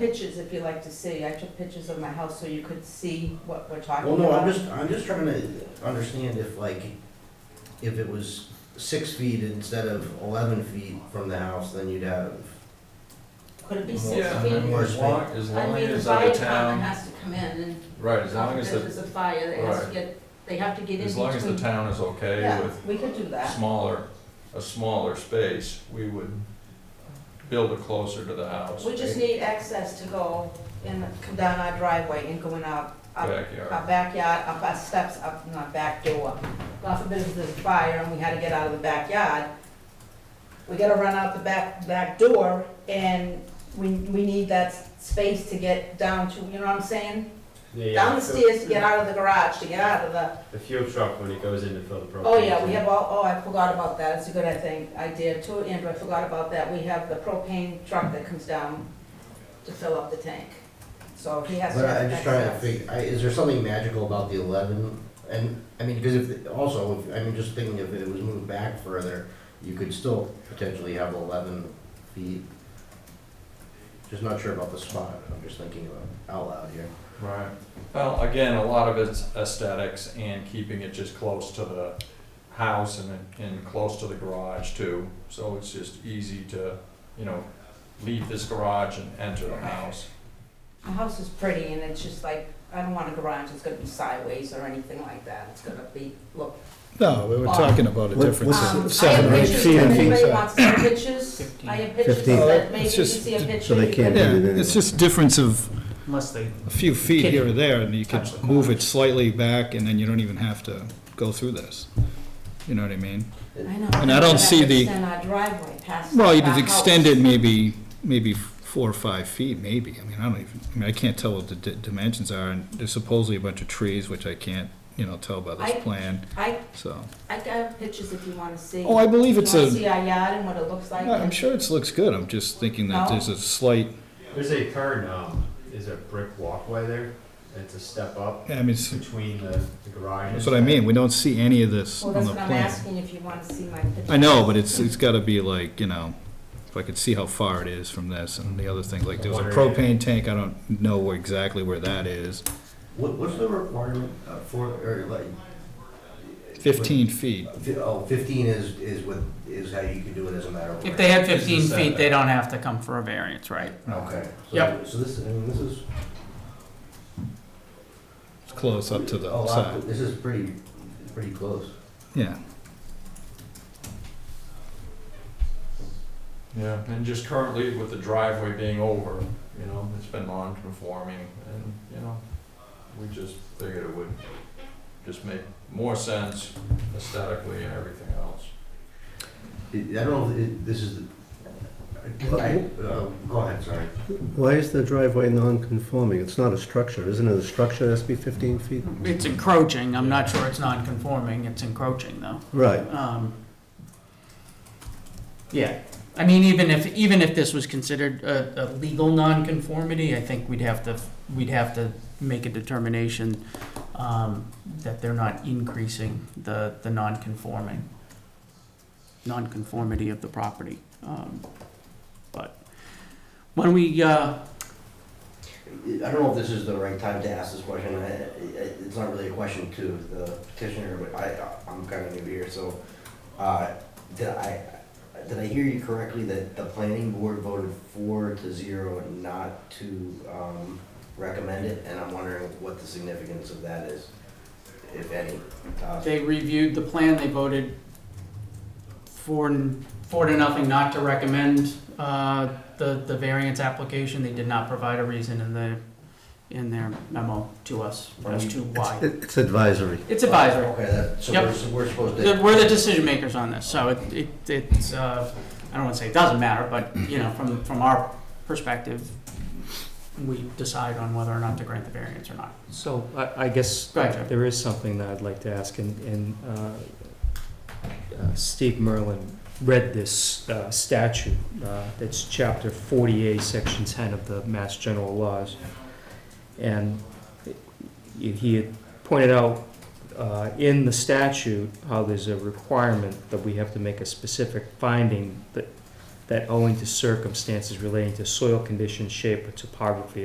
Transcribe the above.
pictures if you like to see. I took pictures of my house so you could see what we're talking Well, about. no, I'm just, I'm just trying to understand if like, if it was six feet instead of eleven feet from the house, then you'd have. Could it be Well, six Yeah, feet? I mean, as long, as I long mean, the as the fire department town, has to come in and, right, as long if as the, there's a fire, they have Right. to get, they have to get in as long as the between. town is okay Yeah, with we could do that. smaller, a smaller space, we would build it closer to the house, We just need access to go and come down our driveway and go in our, our backyard. our backyard, up our steps, up in our back door. God forbid if there's a fire and we had to get out of the backyard, we gotta run out the back, back door and we, we need that s- space to get down to, you know what I'm saying? Down the stairs to get out of the garage, to get out of the The fuel truck when it goes in to fill the propane. Oh, yeah, we have all, oh, I forgot about that, it's a good, I think, idea too, Andrew, I forgot about that, we have the propane truck that comes down to fill up the tank, so he has to. But I- I'm have just trying to access. figure, I, is there something magical about the eleven? And, I mean, because if, also, if- I mean, just thinking if it was moved back further, you could still potentially have eleven feet. Just not sure about the spot, I'm just thinking about out loud here. Right. Well, again, a lot of it's aesthetics and keeping it just close to the house and, and close to the garage too. So it's just easy to, you know, leave this garage and enter the house. My house is pretty, and it's just like, I don't want a garage, it's gonna be sideways or anything like that, it's gonna be, look. No, we were talking about a What- different what's- Um, se- I seven have or eight pictures, feet. if in each anybody side. wants to see pictures, I have pictures, Fifteen. Oh, but maybe It's if you just- see a picture. so they you can't can- do Yeah, it's just difference of Unless they, a few feet here or there, and you could Touch the move it slightly back, and then you don't even have to go through this. You know what I mean? I know. And I We'd don't have see to the- Extend our driveway past. Well, our you'd house. extend it maybe, maybe four or five feet, maybe. I mean, I don't even, I mean, I can't tell what the di- dimensions are, and there's supposedly a bunch of trees, which I can't, you know, tell by I- this plan, I so. I got pictures if you wanna see. Oh, I believe it's You a, wanna see our yard and what it looks like? I'm and- sure it looks good, I'm just thinking that No. there's a slight, There's a current, um, is a brick walkway there. It's a step up I mean, it's- between the the garage. and- that's what I mean, we don't see any of this Well, on that's the what I'm plan. asking, if you wanna see my pictures. I know, but it's, it's gotta be like, you know, if I could see how far it is from this and the other thing, like there was a propane tank, I don't know where- exactly where that is. What, what's the requirement uh, for, or like? Fifteen feet. Fi- Oh, fifteen is, is what, is how you can do it as a matter of. if they had It's the fifteen feet, they setback. don't have to come for a variance, right? Okay. So- Yep. So this, I mean, this is. It's close up to a the lot- side. This is pretty, pretty close. Yeah, Yeah. And just currently with the driveway being over, you know, it's been non-conforming and, you know, we just figured it would just make more sense aesthetically and everything else. I I don't know if it- this is, the- I, uh, go ahead, sorry. Why is the driveway non-conforming? It's not a structure, isn't it? A structure has to be 15 feet? It's encroaching, I'm not sure it's non-conforming, it's encroaching though. Right. Um, Yeah, I mean, even if, even if this was considered a, a legal nonconformity, I think we'd have to, we'd have to make a determination um, that they're not increasing the, the non-conforming, non-conformity of the property. Um, But when we, uh, I don't know if this is the right time to ask this question. I- I- It's not really a question to the petitioner, but I, I'm kind of new here, so, uh, did I, did I hear you correctly that the planning board voted four to zero and not to, um, recommend it? And I'm wondering what the significance of that is, if any. Uh, They reviewed the plan, they voted four, n- four to nothing not to recommend uh, the, the variance application. They did not provide a reason in the, in their memo to us as to why. It- It's advisory. It's advisory. Okay, that, so Yep. we're, so we're supposed The- to. We're the decision makers on this, so it, it it's, uh, I don't want to say it doesn't matter, but, you know, from, from our perspective, we decide on whether or not to grant the variance or not. So I, I guess Go ahead, Jeff. there is something that I'd like to ask, and, and uh, uh, Steve Merlin read this uh, statute, uh, that's chapter 40A, section 10 of the Mass General Laws. And he- he had pointed out uh, in the statute how there's a requirement that we have to make a specific finding that that owing to circumstances relating to soil conditions, shape, or topography of